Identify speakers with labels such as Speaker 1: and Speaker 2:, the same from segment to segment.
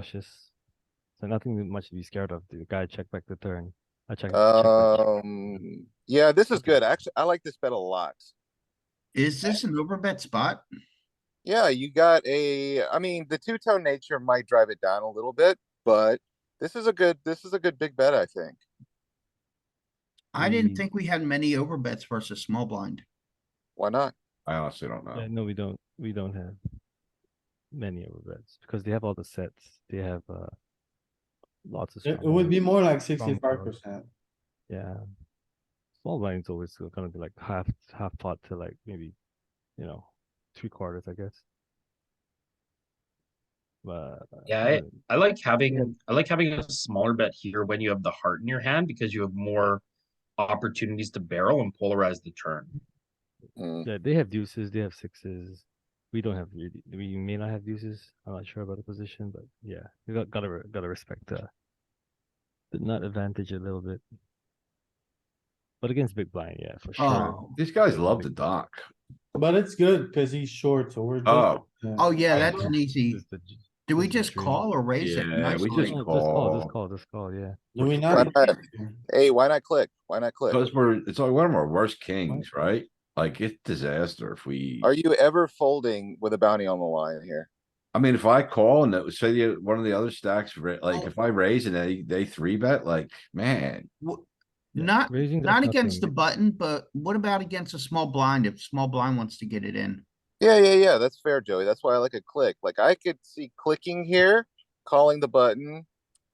Speaker 1: cautious. So nothing that much to be scared of. The guy check back the turn. I check. check back,
Speaker 2: Uh.
Speaker 1: check.
Speaker 3: Um, yeah, this is
Speaker 1: Okay.
Speaker 3: good. Actually, I like this bet a lot.
Speaker 4: Is
Speaker 5: Uh,
Speaker 4: this an overbet spot?
Speaker 3: Yeah, you got a, I mean, the two-tone nature might drive it down a little bit, but this is a good, this is a good big bet, I think.
Speaker 4: I didn't
Speaker 1: Mm.
Speaker 4: think we had many overbets versus small blind.
Speaker 3: Why not?
Speaker 5: I honestly don't know.
Speaker 1: Yeah, no, we don't. We don't have many overbets because they have all the sets. They have uh, lots of.
Speaker 6: It it
Speaker 1: strong
Speaker 6: would be
Speaker 1: hands.
Speaker 6: more like
Speaker 1: strong
Speaker 6: sixty-five
Speaker 1: cards.
Speaker 6: percent.
Speaker 1: Yeah. Small blind's always gonna be like half half pot to like maybe, you know, three quarters, I guess. But uh,
Speaker 2: Yeah, I, I like having, I like having a smaller bet here when you have the heart in your hand because you have more opportunities to barrel and polarize the turn.
Speaker 3: Mm,
Speaker 1: Yeah, they have deuces, they have sixes. We don't have really, we may not have deuces. I'm not sure about the position, but yeah, we got gotta re- gotta respect uh the nut advantage a little bit. But against big blind, yeah, for sure.
Speaker 4: Oh,
Speaker 5: These guys love to dock.
Speaker 6: But it's good because he's short, so we're. just-
Speaker 5: Oh,
Speaker 4: oh yeah,
Speaker 1: I
Speaker 4: that's an easy.
Speaker 1: Just the j-
Speaker 4: Do we
Speaker 1: this is
Speaker 4: just
Speaker 1: true.
Speaker 4: call or raise it?
Speaker 5: Yeah, we
Speaker 1: Oh,
Speaker 5: just
Speaker 4: nicely?
Speaker 1: just call, just
Speaker 5: call.
Speaker 1: call, just call, yeah.
Speaker 6: Do we
Speaker 3: Why
Speaker 6: not?
Speaker 3: not? Hey, why not click? Why not click?
Speaker 5: those were, it's like one of our worst kings, right? Like it's disaster if we,
Speaker 3: Are you ever folding with a bounty on the line here?
Speaker 5: I mean, if I call and it was say the, one of the other stacks, ra- like if I raise and they, they three bet, like, man.
Speaker 4: W-
Speaker 1: Yeah,
Speaker 4: Not,
Speaker 1: raising does
Speaker 4: not against the
Speaker 1: nothing.
Speaker 4: button, but what about against a small blind if small blind wants to get it in?
Speaker 3: Yeah, yeah, yeah, that's fair, Joey. That's why I like a click. Like I could see clicking here, calling the button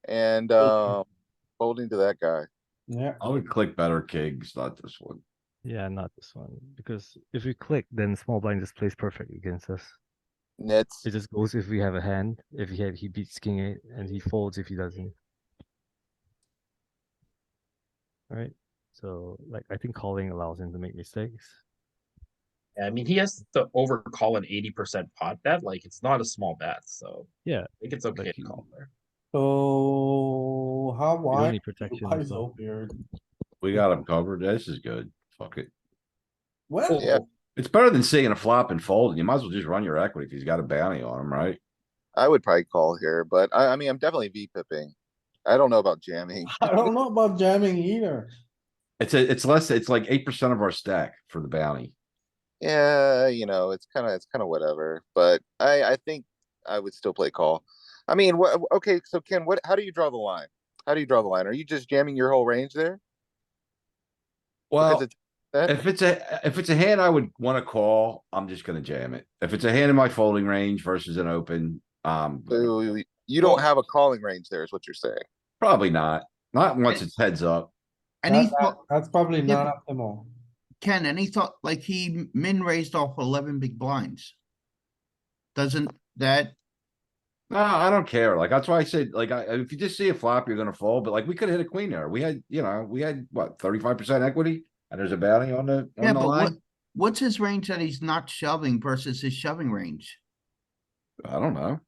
Speaker 3: and, um, folding to that guy.
Speaker 6: Yeah,
Speaker 5: I would click better kings, not this one.
Speaker 1: Yeah, not this one. Because if we click, then small blind just plays perfect against us.
Speaker 3: Nits.
Speaker 1: It just goes if we have a hand. If he had, he beats king eight, and he folds if he doesn't. Alright, so like I think calling allows him to make mistakes.
Speaker 2: I mean, he has to overcall an eighty percent pot bet, like it's not a small bet, so.
Speaker 1: Yeah,
Speaker 2: I think it's okay
Speaker 1: like
Speaker 2: to
Speaker 1: you-
Speaker 2: call there.
Speaker 6: so how
Speaker 1: We don't
Speaker 6: wide?
Speaker 1: need protection.
Speaker 6: Why
Speaker 1: and stuff.
Speaker 6: so weird?
Speaker 5: We got them covered. This is good. Fuck it.
Speaker 6: Well,
Speaker 3: Yeah.
Speaker 5: It's better than seeing a flop and folding. You might as well just run your equity if he's got a bounty on him, right?
Speaker 3: I would probably call here, but I, I mean, I'm definitely V pipping. I don't know about jamming.
Speaker 6: I don't know about jamming either.
Speaker 5: It's a, it's less, it's like eight percent of our stack for the bounty.
Speaker 3: Yeah, you know, it's kind of, it's kind of whatever, but I, I think I would still play call. I mean, what, okay, so Ken, what, how do you draw the line? How do you draw the line? Are you just jamming your whole range there?
Speaker 5: Well.
Speaker 3: Because it's that,
Speaker 5: If it's a, if it's a hand I would wanna call, I'm just gonna jam it. If it's a hand in my folding range versus an open, um,
Speaker 3: so you don't have a calling range there is what you're saying.
Speaker 5: probably not. Not once it's heads up.
Speaker 4: Any,
Speaker 6: That- that-
Speaker 4: thought-
Speaker 6: That's probably
Speaker 4: Yeah,
Speaker 6: not optimal.
Speaker 4: Ken, any thought, like he min raised off eleven big blinds? Doesn't that,
Speaker 5: No, I don't care. Like, that's why I said, like, I, if you just see a flop, you're gonna fold, but like, we could hit a queen there. We had, you know, we had what, thirty-five percent equity? And there's a bounty on the,
Speaker 4: yeah,
Speaker 5: on the
Speaker 4: but what,
Speaker 5: line?
Speaker 4: what's his range that he's not shoving versus his shoving range?
Speaker 5: I don't know.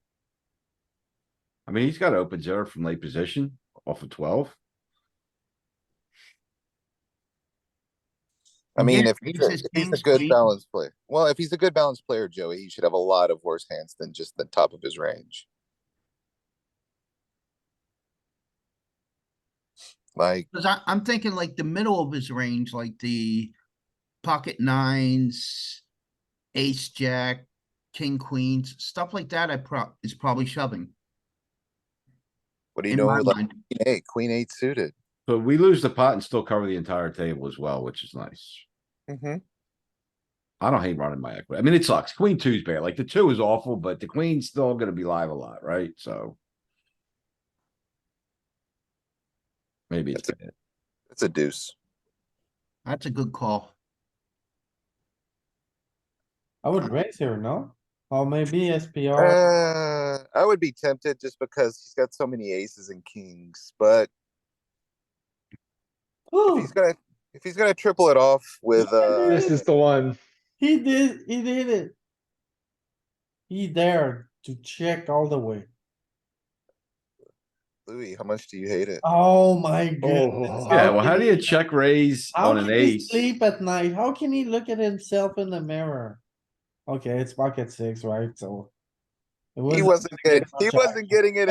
Speaker 5: I mean, he's got open zero from late position off of twelve.
Speaker 3: I mean,
Speaker 4: Yeah,
Speaker 3: if he's
Speaker 4: this
Speaker 3: a,
Speaker 4: is
Speaker 3: if he's a
Speaker 4: king's
Speaker 3: good
Speaker 4: queen.
Speaker 3: balanced player, well, if he's a good balanced player, Joey, he should have a lot of worse hands than just the top of his range. Like,
Speaker 4: Cause I, I'm thinking like the middle of his range, like the pocket nines, ace, jack, king, queens, stuff like that, I prob, is probably shoving.
Speaker 3: what are you
Speaker 4: In
Speaker 3: doing
Speaker 4: my
Speaker 3: with like
Speaker 4: mind,
Speaker 3: queen eight, queen eight suited?
Speaker 5: But we lose the pot and still cover the entire table as well, which is nice.
Speaker 3: Mm-hmm.
Speaker 5: I don't hate running my equity. I mean, it sucks. Queen two's bad. Like the two is awful, but the queen's still gonna be live a lot, right? So. Maybe it's bad.
Speaker 3: It's a deuce.
Speaker 4: That's a good call.
Speaker 6: I would raise here, no? Or maybe SPR,
Speaker 3: Uh, I would be tempted just because he's got so many aces and kings, but if
Speaker 6: Ooh,
Speaker 3: he's gonna, if he's gonna triple it off with, uh,
Speaker 6: This is
Speaker 7: the one.
Speaker 6: he did, he did it. He dared to check all the way.
Speaker 3: Louis, how much do you hate it?
Speaker 6: Oh my goodness.
Speaker 5: Yeah, well, how do you
Speaker 6: can he-
Speaker 5: check raise
Speaker 6: How
Speaker 5: on an
Speaker 6: can he
Speaker 5: ace?
Speaker 6: sleep at night? How can he look at himself in the mirror? Okay, it's bucket six, right? So. it
Speaker 3: He
Speaker 6: wasn't
Speaker 3: wasn't
Speaker 6: gonna
Speaker 3: getting,
Speaker 6: get
Speaker 3: he
Speaker 6: much
Speaker 3: wasn't getting it